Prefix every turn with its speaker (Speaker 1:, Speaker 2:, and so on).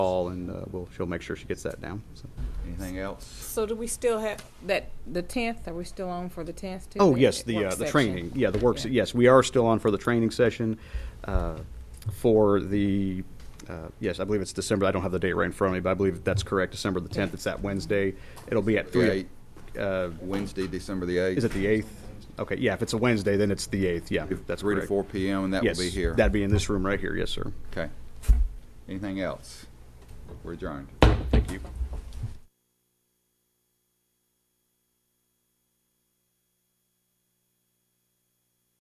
Speaker 1: call, and uh, we'll, she'll make sure she gets that down. so.
Speaker 2: Anything else?
Speaker 3: So do we still have that, the tenth, are we still on for the tenth too?
Speaker 1: Oh,
Speaker 3: That
Speaker 1: yes, the,
Speaker 3: work
Speaker 1: uh, the
Speaker 3: session?
Speaker 1: training, yeah, the works,
Speaker 3: Yeah.
Speaker 1: yes, we are still on for the training session uh, for the, uh, yes, I believe it's December, I don't have the date right in front of me, but I believe that's correct, December the 10th, it's that Wednesday. It'll be at three. uh,
Speaker 2: Wednesday, December the 8th.
Speaker 1: Is it the 8th? Okay, yeah, if it's a Wednesday, then it's the 8th, yeah, that's correct.
Speaker 2: 3 to 4 p.m., and that will
Speaker 1: Yes,
Speaker 2: be here.
Speaker 1: that'd be in this room right here, yes, sir.
Speaker 2: Okay. Anything else? We're adjourned.
Speaker 1: Thank you.